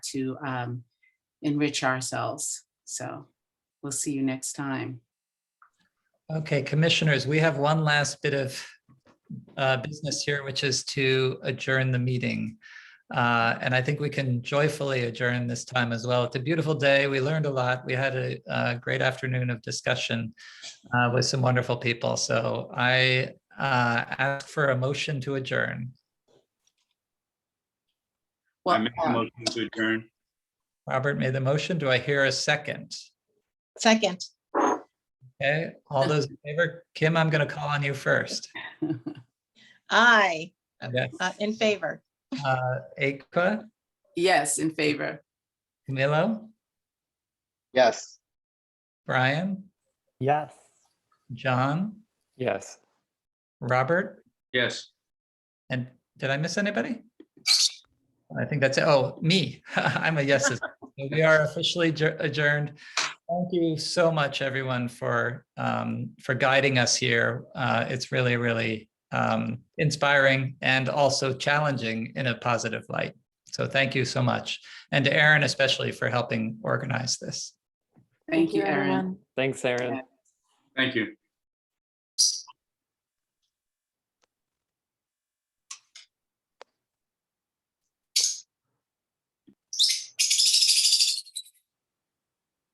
to um, enrich ourselves. So we'll see you next time. Okay, commissioners, we have one last bit of uh, business here, which is to adjourn the meeting. Uh, And I think we can joyfully adjourn this time as well. It's a beautiful day. We learned a lot. We had a uh, great afternoon of discussion uh, with some wonderful people. So I uh, ask for a motion to adjourn. I Well, make a um, motion to adjourn. Robert made the motion. Do I hear a second? Second, Okay, all those in favor? Kim, I'm going to call on you first. aye, Okay, uh, in favor. uh, Akwa, yes, in favor. Camilo, Yes. Brian? Yes. John, Yes. Robert, Yes. and did I miss anybody? I think that's, it. oh, me. I'm a yes. as well. So We are officially adjour- adjourned. Thank you so much, everyone, for, um, for guiding us here. Uh, It's really, really um, inspiring and also challenging in a positive light. So thank you so much. And to Aaron especially for helping organize this. Thank you, Erin. Thanks, Aaron. Thank you.